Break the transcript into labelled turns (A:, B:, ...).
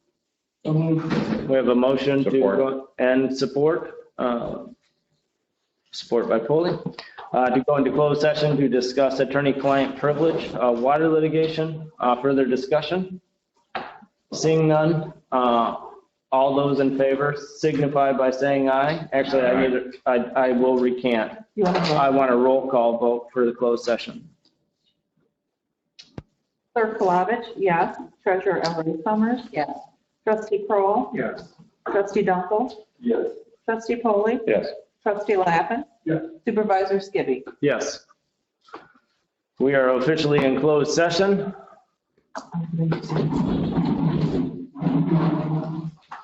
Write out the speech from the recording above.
A: We have a motion to,
B: Support.
A: go and support, uh, support by Polley, uh, to go into closed session to discuss attorney-client privilege, uh, water litigation, uh, further discussion. Seeing none, uh, all those in favor signify by saying aye. Actually, I need, to- I, I will recant.
C: You want to
A: I want a roll call vote for the closed session.
C: Clerk Palovich, yes. Treasurer Ellery Summers. Yes. Trustee Kroll,
B: Yes.
C: Trustee Dunkel.
B: Yes.
C: Trustee Polly.
B: Yes.
C: Trustee Lappin.
B: Yes.
C: Supervisor Skibby.
A: Yes. We are officially in closed session.